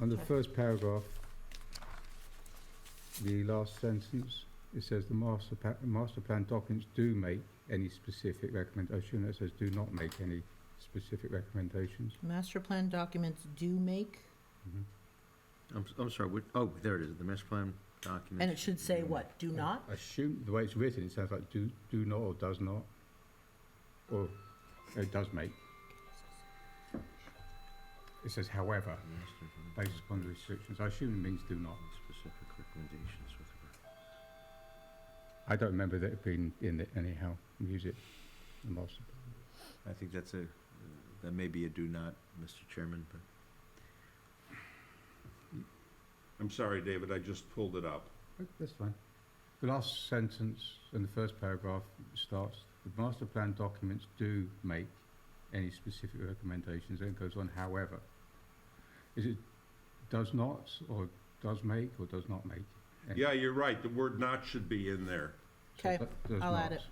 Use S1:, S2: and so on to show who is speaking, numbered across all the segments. S1: On the first paragraph, the last sentence, it says the master pa- master plan documents do make any specific recommendation. It says do not make any specific recommendations.
S2: Master plan documents do make,
S3: I'm, s- I'm sorry, what, oh, there it is, the master plan document.
S2: and it should say what, do not?
S1: Assume, the way it's written, it sounds like do, do not or does not, or it does make. It says however,
S3: Master plan
S1: based upon the restrictions. I assume it means do not.
S3: document, Specific recommendations with regard.
S1: I don't remember that being in it anyhow, music, the master plan.
S3: I think that's a, that may be a do not, Mr. Chairman, but.
S4: I'm sorry, David, I just pulled it up.
S1: Oh, That's fine. The last sentence in the first paragraph starts, "The master plan documents do make any specific recommendations," then it goes on, "however." Is it does not, or does make, or does not make? any?
S4: Yeah, you're right, the word not should be in there.
S1: So
S2: Okay,
S1: that does
S2: I'll add
S1: not.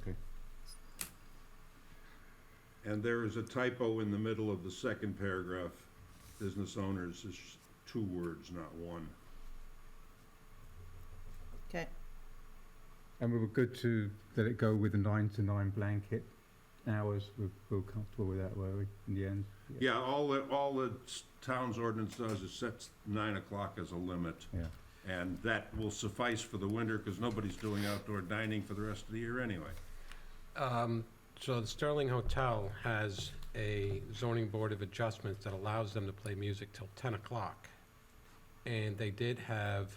S1: Okay,
S4: And there is a typo in the middle of the second paragraph. Business owners is two words, not one.
S2: Okay,
S1: and we were good to let it go with the nine to nine blanket hours, we're, we're comfortable with that, were we, in the end?
S4: Yeah, all, the- all the s- town's ordinance does is sets nine o'clock as a limit.
S1: Yeah,
S4: And that will suffice for the winter, because nobody's doing outdoor dining for the rest of the year anyway.
S5: Um, So the Sterling Hotel has a zoning board of adjustments that allows them to play music till 10 o'clock. And they did have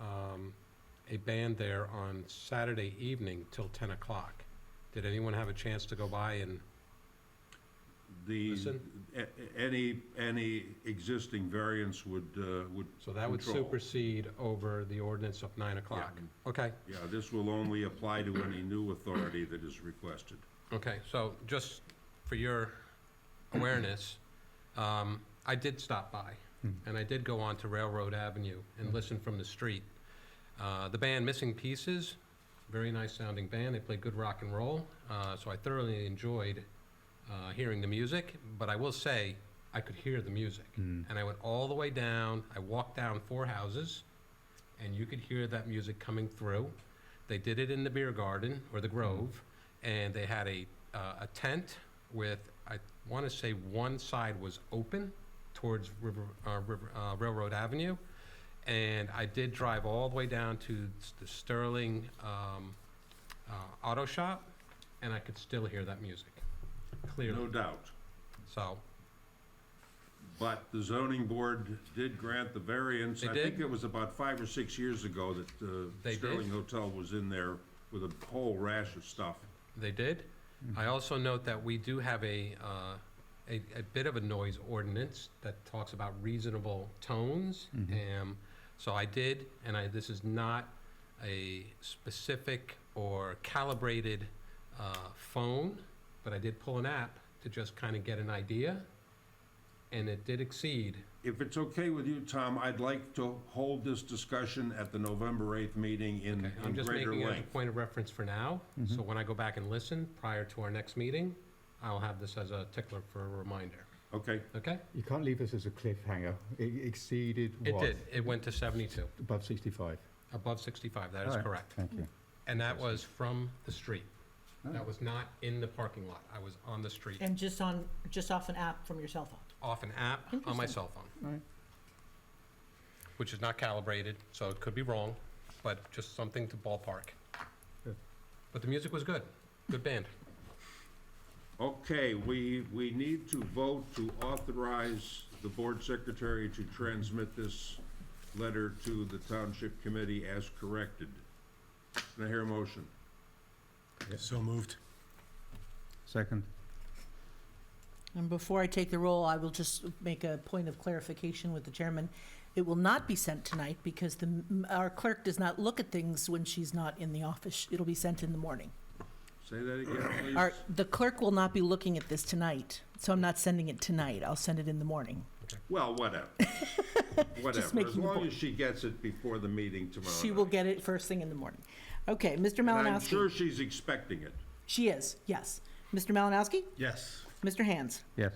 S5: um, a band there on Saturday evening till 10 o'clock. Did anyone have a chance to go by and,
S4: The,
S5: Listen.
S4: a- a- any, any existing variance would, uh, would,
S5: so that would
S4: Control.
S5: supersede over the ordinance of 9 o'clock? Okay,
S4: yeah, this will only apply to any new authority that is requested.
S5: okay, so just for your awareness, um, I did stop by.
S1: Hmm.
S5: and I did go on to Railroad Avenue and listen from the street. Uh, the band Missing Pieces, very nice sounding band. They played good rock and roll, uh, so I thoroughly enjoyed uh, hearing the music. But I will say, I could hear the music,
S1: Hmm.
S5: and I went all the way down. I walked down four houses, and you could hear that music coming through. They did it in the beer garden or the Grove, and they had a uh, a tent with I want to say one side was open towards River, uh, River, uh, Railroad Avenue, and I did drive all the way down to s- the Sterling um, uh, Auto Shop, and I could still hear that music clearly.
S4: No doubt.
S5: So
S4: But the zoning board did grant the variance.
S5: They
S4: I think
S5: did?
S4: it was about five or six years ago that uh,
S5: They did?
S4: Sterling Hotel was in there with a whole rash of stuff.
S5: They did. I also note that we do have a, uh, a, a bit of a noise ordinance that talks about reasonable tones. Um, so I did, and I, this is not a specific or calibrated, uh, phone, but I did pull an app to just kind of get an idea. And it did exceed.
S4: If it's okay with you, Tom, I'd like to hold this discussion at the November 8th meeting in in
S5: I'm just
S4: greater
S5: making it as a
S4: length.
S5: point of reference for now. So when I go back and listen prior to our next meeting, I'll have this as a tickler for a reminder.
S4: Okay,
S5: Okay?
S1: you can't leave us as a cliffhanger, it exceeded
S5: It
S1: what?
S5: did. It went to 72,
S1: Above sixty-five.
S5: above 65. That is
S1: All right,
S5: correct.
S1: Thank you.
S5: And that was from the street.
S1: Oh.
S5: That was not in the parking lot. I was on the street,
S2: and just on, just off an app from your cell phone.
S5: off an app on my
S2: Interesting.
S5: cell phone,
S1: All right.
S5: which is not calibrated, so it could be wrong, but just something to ballpark.
S1: Good.
S5: But the music was good. Good band.
S4: okay, we, we need to vote to authorize the board secretary to transmit this letter to the township committee as corrected. Can I hear a motion?
S6: So moved.
S1: Second.
S2: And before I take the roll, I will just make a point of clarification with the chairman. It will not be sent tonight because the, our clerk does not look at things when she's not in the office. It'll be sent in the morning.
S4: Say that again,
S2: Our,
S4: please.
S2: the clerk will not be looking at this tonight, so I'm not sending it tonight. I'll send it in the morning.
S4: Well, whatever. Whatever, as
S2: making the
S4: long
S2: point.
S4: as she gets it before the meeting tomorrow.
S2: She will
S4: night.
S2: get it first thing in the morning. Okay, Mr.
S4: And I'm sure
S2: Malinowski.
S4: she's expecting it.
S2: She is, yes. Mr. Malinowski?
S6: Yes.
S2: Mr. Hands?
S1: Yes.